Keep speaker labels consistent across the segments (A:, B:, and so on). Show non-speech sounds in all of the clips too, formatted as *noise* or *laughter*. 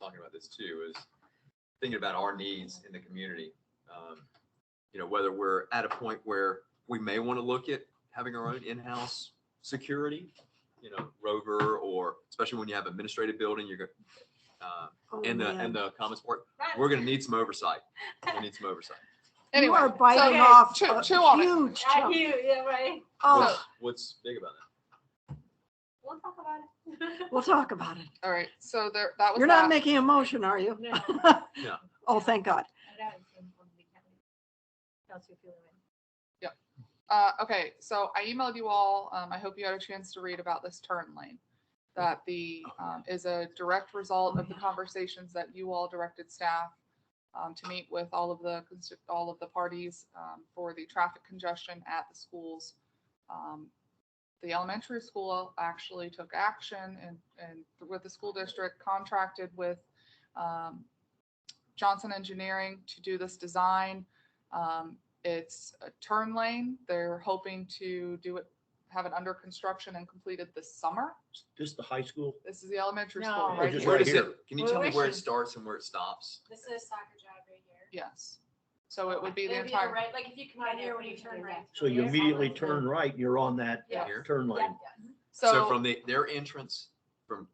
A: talking about this too, is thinking about our needs in the community. Um, You know, whether we're at a point where we may want to look at having our own in-house security, you know, Rover or especially when you have administrative building, you're, go- uh,
B: Oh,
A: and the,
B: man.
A: and the commons board, we're
C: *laughs*
A: going to need some oversight. We need some oversight.
B: You
D: Anyway,
B: are
D: okay,
B: biting off
D: chew-
B: a
D: chew on it.
B: huge
C: I
B: chunk.
C: hear, yeah, right.
B: *laughs* Oh,
A: What's- What's big about that?
C: We'll talk about it. *laughs*
B: we'll talk about it.
D: all right, so there, that was
B: You're not
D: that.
B: making a motion, are you? *laughs*
C: No.
A: No.
B: Oh, thank God.
C: I know it's in one week, haven't we? Kelsey, if you're in.
D: Uh, okay, so I emailed you all. Um, I hope you had a chance to read about this turn lane. That the, um, is a direct result of the conversations that you all directed staff um, to meet with all of the, cons- all of the parties, um, for the traffic congestion at the schools. Um, The elementary school actually took action and, and with the school district contracted with, um, Johnson Engineering to do this design. Um, it's a turn lane. They're hoping to do it, have it under construction and completed this summer.
E: Just the high school?
D: This is the elementary
C: No.
D: school
C: Oh,
D: right
E: just
D: here.
A: Where
E: right
A: does
E: here.
A: it, can you tell me
C: Well,
A: where
C: we
A: it
C: should-
A: starts and where it stops?
F: This is soccer job right here.
D: Yes. So it would be the
F: It'd
D: entire.
F: right, like if you come out here when you turn right.
E: So you
F: Yeah.
E: immediately turn right, you're on that
F: Yeah.
A: Here?
E: turn lane.
A: So
D: So,
A: from the, their entrance, from,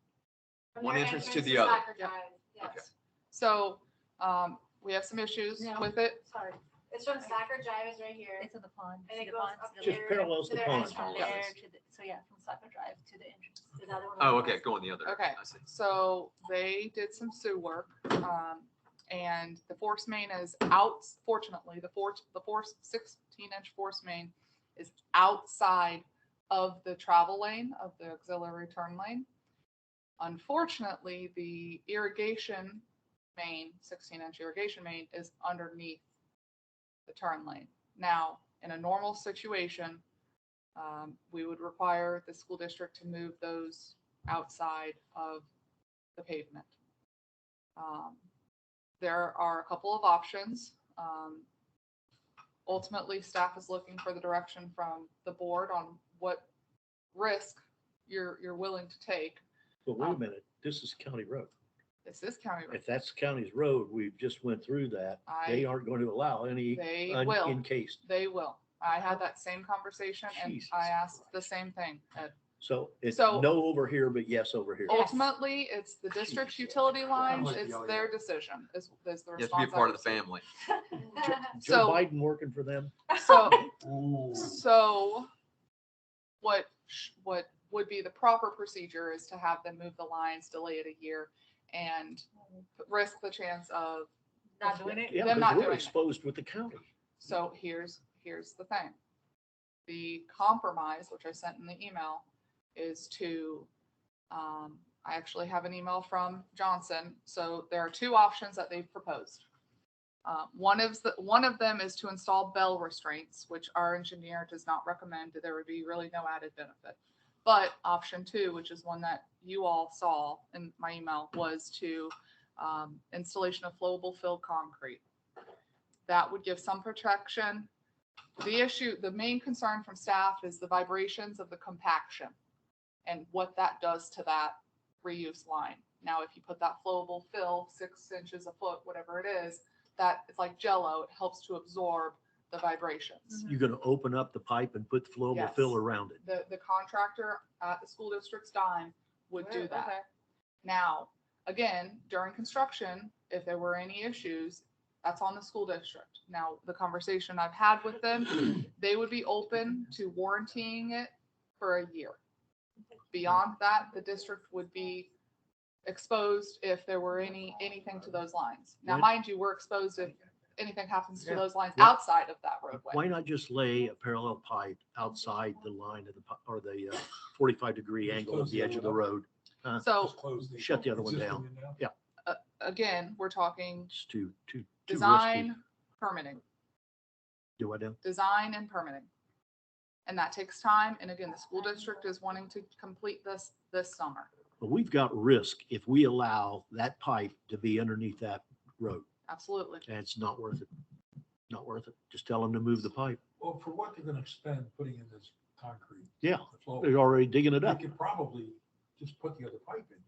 F: From
A: one
F: your
A: entrance to the other.
F: soccer
D: Yep.
F: drive. Yeah,
A: okay.
D: so, um, we have some issues
C: No.
D: with it.
C: Sorry,
F: it's from soccer drive is right here.
C: it's in the pond.
F: And
C: See
F: it
C: the
F: goes
C: pond,
F: up
C: see the
E: Just
F: here,
E: parallels
F: to
E: the
F: their
E: pond.
F: entrance
A: Yeah.
F: there,
C: there to the- So yeah, from Soccer Drive to the entrance.
F: to the other one.
A: oh, okay, go on the other.
D: Okay.
A: I see.
D: So they did some sewer work, um, and the force main is out, fortunately, the force, the force sixteen inch force main is outside of the travel lane of the auxiliary turn lane. Unfortunately, the irrigation main, sixteen inch irrigation main is underneath the turn lane. Now, in a normal situation, um, we would require the school district to move those outside of the pavement. Um, There are a couple of options. Um, Ultimately, staff is looking for the direction from the board on what risk you're, you're willing to take.
E: But
D: Oh.
E: wait a minute, this is county road.
D: This is county road.
E: If that's county's road, we just went through that. They
D: I,
E: aren't going to allow any
D: they
E: un-
D: will,
E: encased.
D: they will. I had that same conversation and
E: Jesus
D: I asked the
E: Christ.
D: same thing Uh, at
E: So it's
D: So-
E: no over here, but yes over here.
C: Yes.
D: Ultimately, it's the district's
E: Jesus.
D: utility lines,
E: like
D: it's their decision, is, is the
A: You have to be a
D: response. I
A: part of the
D: received.
A: family.
E: Joe
D: So-
E: Biden working for them?
D: So,
A: *laughs*
D: so what, sh- what would be the proper procedure is to have them move the lines, delay it a year, and risk the chance of,
C: *laughs* Not doing
B: *laughs*
C: it?
E: Yeah,
D: Them not
E: because
D: doing
E: we're
D: it.
E: exposed with the county.
D: so here's, here's the thing. The compromise, which I sent in the email, is to, um, I actually have an email from Johnson. So there are two options that they've proposed. Uh, One of the, one of them is to install bell restraints, which our engineer does not recommend. There would be really no added benefit. But option two, which is one that you all saw in my email, was to um, installation of flowable filled concrete. That would give some protection. The issue, the main concern from staff is the vibrations of the compaction and what that does to that reuse line. Now, if you put that flowable fill, six inches a foot, whatever it is, that it's like jello, it helps to absorb the vibrations.
C: Mm-hmm.
E: You're going to open up the pipe and put the flowable
D: Yes.
E: fill around it.
D: The, the contractor at the school district's dime would do
C: Right,
D: that.
C: okay.
D: Now, again, during construction, if there were any issues, that's on the school district. Now, the conversation I've had with
E: *clears throat*
D: them, they would be open to warrantying it for a year. Beyond that, the district would be exposed if there were any, anything to those lines. Now,
E: Right.
D: mind you, we're exposed if anything happens to
E: Yeah.
D: those lines
E: Yeah.
D: outside of that roadway.
E: Why not just lay a parallel pipe outside the line of the, pi- or the uh, 45 degree
G: Just
E: angle of
G: close
E: the
G: the
E: edge of the
G: other one.
E: road? Huh?
D: So
G: Just close the-
E: Oh, Shut the other one
G: existing
E: down.
G: one down.
D: again, we're talking
E: It's too, too, too risky.
D: design, permitting.
E: Do I know?
D: design and permitting. And that takes time. And again, the school district is wanting to complete this, this summer.
E: But we've got risk if we allow that pipe to be underneath that road.
D: Absolutely.
E: And it's not worth it. Not worth it. Just tell them to move the pipe.
G: Well, for what they're gonna spend putting in this concrete.
E: Yeah,
G: the flow,
E: they're already digging it
G: They
E: up.
G: could probably just put the other pipe in. uh,